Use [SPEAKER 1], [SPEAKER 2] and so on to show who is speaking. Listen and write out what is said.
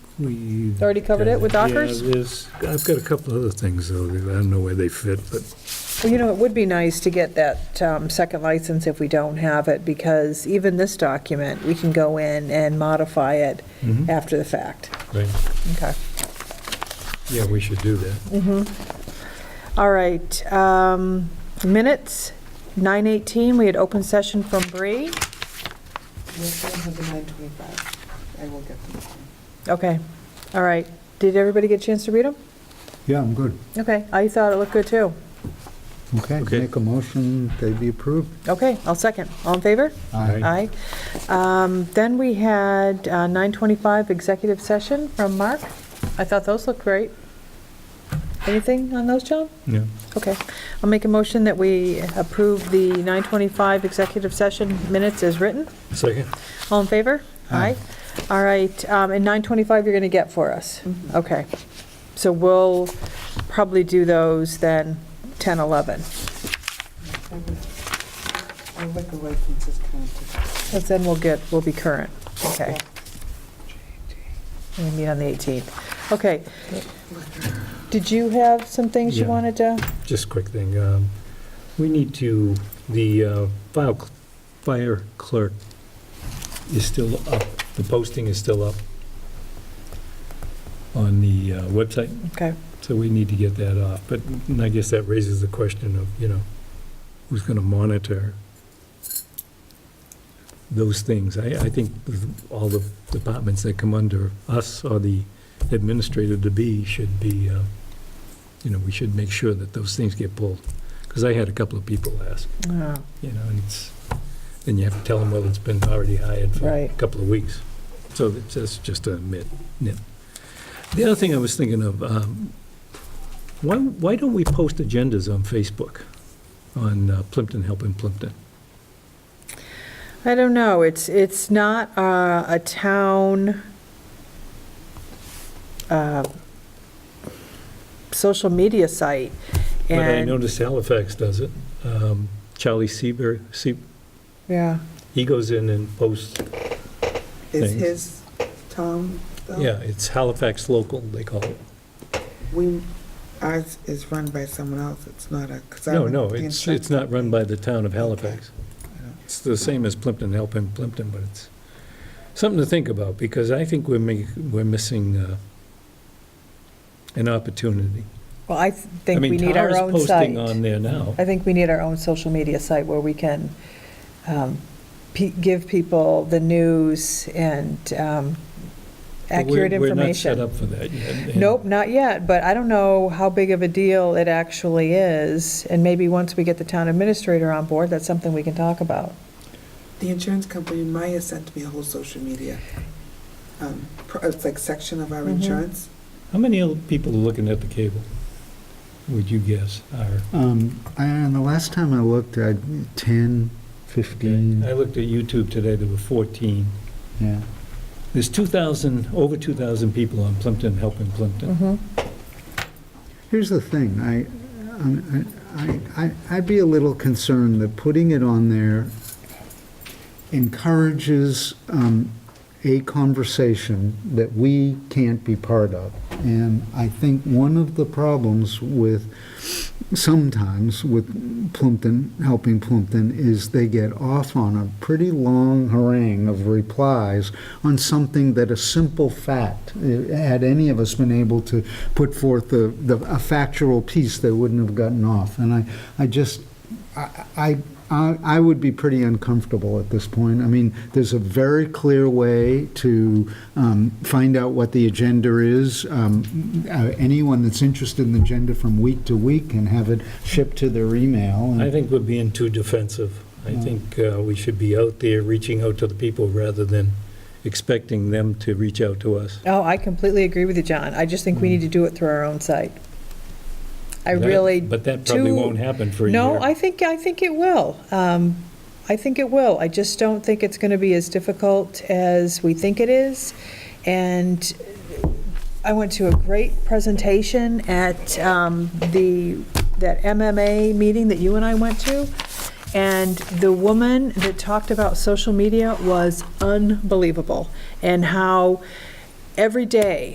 [SPEAKER 1] we.
[SPEAKER 2] Already covered it with Dockers?
[SPEAKER 1] Yeah, there's, I've got a couple other things, though, that I don't know where they fit, but
[SPEAKER 2] Well, you know, it would be nice to get that um, second license if we don't have it, because even this document, we can go in and modify it after the fact.
[SPEAKER 1] Right.
[SPEAKER 2] Okay.
[SPEAKER 1] Yeah, we should do that.
[SPEAKER 2] Mm-hmm. All right, um, minutes, 9:18, we had open session from Bree.
[SPEAKER 3] Yes, I have the 925. I will get them.
[SPEAKER 2] Okay, all right. Did everybody get a chance to read them?
[SPEAKER 4] Yeah, I'm good.
[SPEAKER 2] Okay, I thought it looked good, too.
[SPEAKER 4] Okay,
[SPEAKER 1] Okay.
[SPEAKER 4] make a motion, they be approved.
[SPEAKER 2] Okay, I'll second. All in favor?
[SPEAKER 1] Aye.
[SPEAKER 2] Aye. Um, Then we had uh, 9:25 executive session from Mark. I thought those looked great. Anything on those, John?
[SPEAKER 1] Yeah.
[SPEAKER 2] Okay. I'll make a motion that we approve the 9:25 executive session minutes as written.
[SPEAKER 1] Second?
[SPEAKER 2] All in favor? Aye. All right, um, and 9:25 you're going to get for us? Okay. So we'll probably do those then 10, 11.
[SPEAKER 3] I would- Our liquor license is counted.
[SPEAKER 2] Because then we'll get, we'll be current. Okay. We meet on the 18th. Okay. Did you have some things you
[SPEAKER 1] Yeah.
[SPEAKER 2] wanted to?
[SPEAKER 1] Just a quick thing. um, We need to, the uh, file cl- fire clerk is still up, the posting is still up on the uh, website,
[SPEAKER 2] Okay.
[SPEAKER 1] so we need to get that off. But and I guess that raises the question of, you know, who's going to monitor those things? I, I think all the departments that come under us or the administrator to be should be, uh, you know, we should make sure that those things get pulled. Because I had a couple of people ask,
[SPEAKER 2] Oh,
[SPEAKER 1] you know, and it's, then you have to tell them, well, it's been already hired for a
[SPEAKER 2] Right.
[SPEAKER 1] couple of weeks. So that's that's just a nit, nit. The other thing I was thinking of, um, why, why don't we post agendas on Facebook, on uh, Plimpton Helping Plimpton?
[SPEAKER 2] I don't know. It's, it's not uh, a town uh, social media site.
[SPEAKER 1] But I
[SPEAKER 2] And,
[SPEAKER 1] noticed Halifax does it. Um, Charlie Seaver, Se-
[SPEAKER 2] yeah.
[SPEAKER 1] he goes in and posts,
[SPEAKER 3] Is
[SPEAKER 1] Thanks.
[SPEAKER 3] his town, though?
[SPEAKER 2] Oh.
[SPEAKER 1] yeah, it's Halifax Local, they call it.
[SPEAKER 3] We, ours is run by someone else. It's not a, because I.
[SPEAKER 1] No,
[SPEAKER 3] went
[SPEAKER 1] no,
[SPEAKER 3] to the
[SPEAKER 1] it's,
[SPEAKER 3] insurance
[SPEAKER 1] it's not run by the town of Halifax.
[SPEAKER 3] I know.
[SPEAKER 1] It's the same as Plimpton, helping Plimpton, but it's something to think about, because I think we're make, we're missing, uh, an opportunity.
[SPEAKER 2] Well, I
[SPEAKER 1] I
[SPEAKER 2] think
[SPEAKER 1] mean,
[SPEAKER 2] we need our
[SPEAKER 1] Tara's
[SPEAKER 2] own
[SPEAKER 1] posting
[SPEAKER 2] site.
[SPEAKER 1] on there now.
[SPEAKER 2] I think we need our own social media site where we can um, pe- give people the news and um,
[SPEAKER 1] but we're-
[SPEAKER 2] accurate information.
[SPEAKER 1] We're not set up for that yet. and-
[SPEAKER 2] Nope, not yet, but I don't know how big of a deal it actually is, and maybe once we get the town administrator on board, that's something we can talk about.
[SPEAKER 3] The insurance company, Maya sent me a whole social media, um, pro- it's like section of our
[SPEAKER 2] Mhm.
[SPEAKER 3] insurance.
[SPEAKER 1] How many old people are looking at the cable, would you guess, are?
[SPEAKER 4] Um, and the last time I looked, I, 10,
[SPEAKER 1] I
[SPEAKER 4] 15,
[SPEAKER 1] looked at YouTube today, there were 14.
[SPEAKER 4] yeah.
[SPEAKER 1] There's 2,000, over 2,000 people on Plimpton, helping Plimpton.
[SPEAKER 2] Mhm.
[SPEAKER 4] Here's the thing, I, I- I, I- I'd be a little concerned that putting it on there encourages um, a conversation that we can't be part of. And I think one of the problems with, sometimes with Plumpton, helping Plumpton, is they get off on a pretty long harangue of replies on something that a simple fact, eh, had any of us been able to put forth the, the, a factual piece, they wouldn't have gotten off. And I, I just, I, I, I would be pretty uncomfortable at this point. I mean, there's a very clear way to um, find out what the agenda is. Um, uh, Anyone that's interested in the agenda from week to week can have it shipped to their email.
[SPEAKER 1] I
[SPEAKER 4] and-
[SPEAKER 1] think we're being too defensive. I
[SPEAKER 2] Mm.
[SPEAKER 1] think uh, we should be out there reaching out to the people rather than expecting them to reach out to us.
[SPEAKER 2] Oh, I completely agree with you, John. I just think we need to do it through our own site. I
[SPEAKER 1] Mm. That-
[SPEAKER 2] really
[SPEAKER 1] But that probably
[SPEAKER 2] do-
[SPEAKER 1] won't happen for a year.
[SPEAKER 2] No, I think, I think it will. Um, I think it will. I just don't think it's going to be as difficult as we think it is. And I went to a great presentation at um, the, that MMA meeting that you and I went to, and the woman that talked about social media was unbelievable, and how every day